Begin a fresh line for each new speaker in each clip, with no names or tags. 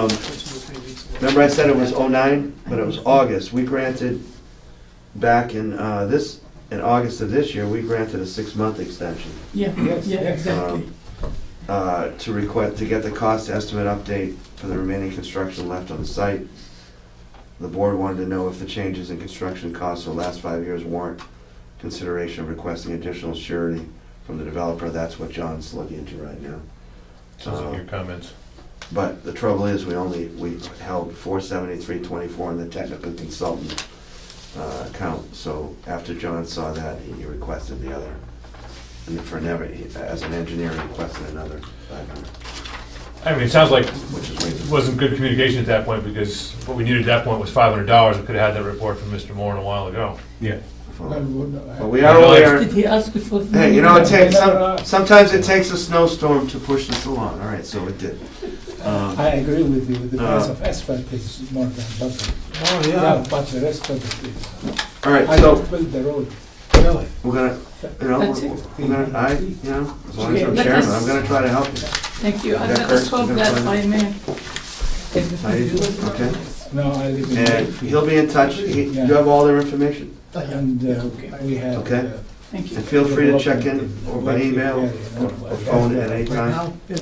Um, Remember I said it was '09, but it was August. We granted, back in uh, this, in August of this year, we granted a six-month extension Um,
Yeah,
Yes,
yeah,
yes.
exactly.
uh, to request, to get the cost estimate update for the remaining construction left on the site. The board wanted to know if the changes in construction costs for the last five years warrant consideration of requesting additional surety from the developer. That's what John's looking into right now.
Says in your comments.
But the trouble is, we only, we held four seventy-three twenty-four in the technical consultant uh, account, so after John saw that, he requested the other. And for never, he- as an engineer, he requested another five hundred,
I mean, it sounds like
which is way
it
too.
wasn't good communication at that point, because what we needed at that point was five hundred dollars, we could have had that report from Mr. Moore a while ago.
Well,
full.
we wouldn't have-
But we are aware,
Did he ask for?
hey, you know, it takes, some- sometimes it takes a snowstorm to push this along, all right, so it did. Um,
I agree with you, the price
Uh.
of asphalt is more than double.
Oh,
Yeah, but the rest of it is,
All right,
I
so,
don't build the road, really.
we're gonna, you know,
That's
we're
it.
we're gonna, I, you know, as long as I'm
Okay, let
chairman,
us-
I'm gonna try to help you.
Thank you. I
That
I
hurts.
hope that I may.
Are you- Okay.
No, I live in
And he'll
Wakefield.
be in touch. He- You have all their information?
And uh, we have.
Okay.
uh,
Thank you.
And feel free to check in or by email or or phone at any time. Do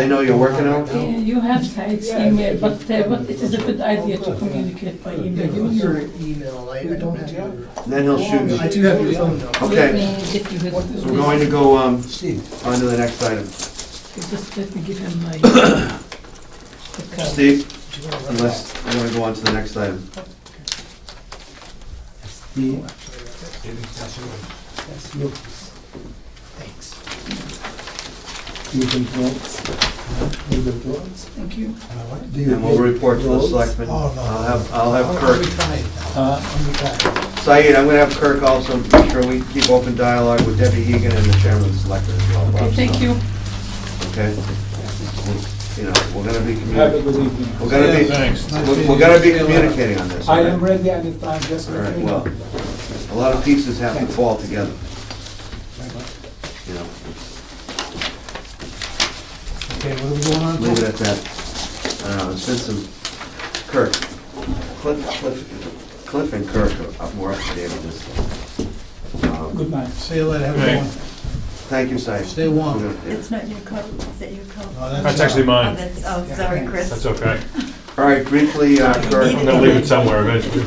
they know you're working out?
Uh, You have Said's email, but, uh, but it is a good idea to communicate by email. You know.
Your email, I I don't have your,
And Then he'll shoot
I
me.
do have your phone number.
Okay, so we're going to go um,
Steve.
on to the next item.
Just let me give him my. the card.
Steve,
Do you want to run that?
unless we're going to go on to the next item.
Steve. Yes, look,
Thanks.
you build roads, you build roads.
Thank you.
Do you
And we'll
build
report to the
roads?
selectmen.
Oh, no.
I'll have, I'll have
I'm
Kirk.
retired now.
Uh,
I'm retired.
Said, I'm going to have Kirk also make sure we keep open dialogue with Debbie Egan and the chairman of the selectmen as well. Bob.
Thank you.
Okay? You know, we're going to be
Have a
communicating.
good evening.
We're going to be,
Thanks.
We're we're gonna be communicating on this.
I
all
am
right?
ready anytime, just
All
let
right,
me
well,
know.
a lot of pieces have to fall together, you know,
Okay, what are we going on?
leave it at that. Uh, There's been some, Kirk, Cliff, Cliff, Cliff and Kirk are up more up to date on this. Um,
Good night.
See you later, have a
Hey.
good one.
Thank you, Si.
Stay warm.
We're gonna-
It's not your coat, is it your coat?
No,
That's actually
Oh,
mine,
that's, oh, sorry, Chris.
that's okay.
All right, briefly, uh,
I'm
Kirk,
gonna leave it somewhere eventually.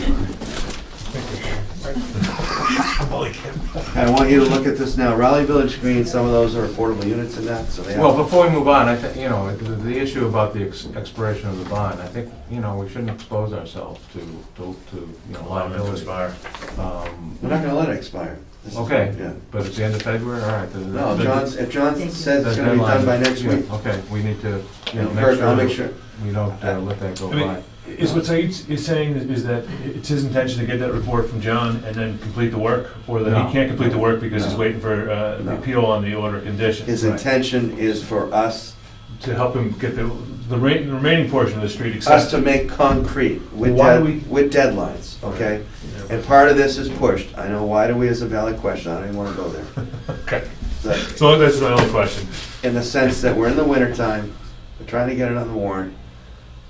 I want you to look at this now, Raleigh Village Green, some of those are affordable units in that, so they
Well,
have,
before we move on, I think, you know, the, the issue about the ex- expiration of the bond, I think, you know, we shouldn't expose ourselves to, to, to, you know, liability. Um,
we're not gonna let it expire. This is-
Okay.
Yeah.
But it's the end of February, all right. the- the-
No, John's, if John
Thank you.
says
the
it's gonna be done
deadline-
by next
yeah,
week,
Okay, we need to, you know,
Kirk, I'll make
make sure
sure,
we don't uh, let that go
I mean,
by.
Is what Said is saying is- is that it's his intention to get that report from John and then complete the work? Or that
No.
he can't complete the work because he's
No.
waiting for uh,
No.
the appeal on the order of condition?
His intention is for us,
To help him get the, the re- the remaining portion of the street
us
accepted?
to make concrete with,
Why do
dead-
we-
with deadlines, okay? And part of this is pushed, I know, why do we is a valid question, I don't even wanna go there.
Okay,
The-
so that's my only question.
In the sense that we're in the wintertime, we're trying to get it on the warrant.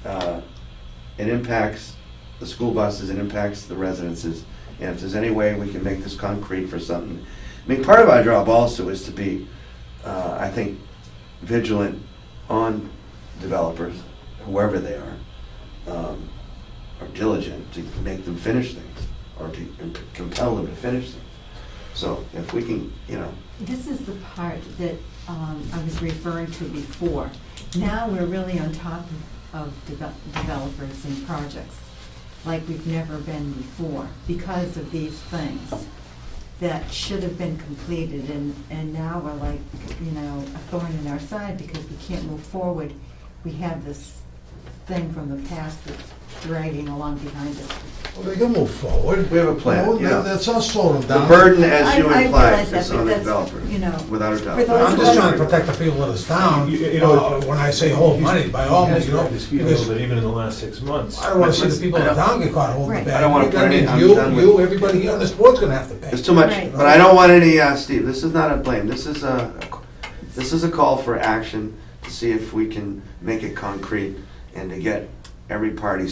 uh, It impacts the school buses, it impacts the residences, and if there's any way we can make this concrete for something. I mean, part of our job also is to be, uh, I think, vigilant on developers, whoever they are, um, or diligent to make them finish things, or to imp- compel them to finish things. So if we can, you know,
This is the part that um, I was referring to before. Now we're really on top of- of deve- developers and projects, like we've never been before, because of these things that should have been completed, and, and now we're like, you know, a thorn in our side because we can't move forward. We have this thing from the past that's dragging along behind us.
Well, They can move forward.
we have a
No,
plan, yeah.
that- That's not slowing them
The
down.
burden, as you
I- I
implied,
realize that,
is
but
on the
that's,
developer,
you know,
without a
for
doubt.
those
I'm just trying to protect the people of this town,
You- you know-
Uh, when I say hold money, by all means, you know, because
even in the last six months.
I don't wanna see the people of the town get caught holding the
Right.
bag.
I don't wanna put
That
any-
means
I'm done with-
You, you, everybody here on this board's gonna have to pay.
It's too much,
Right.
but I don't want any, uh, Steve, this is not a blame, this is a, this is a call for action to see if we can make it concrete and to get every party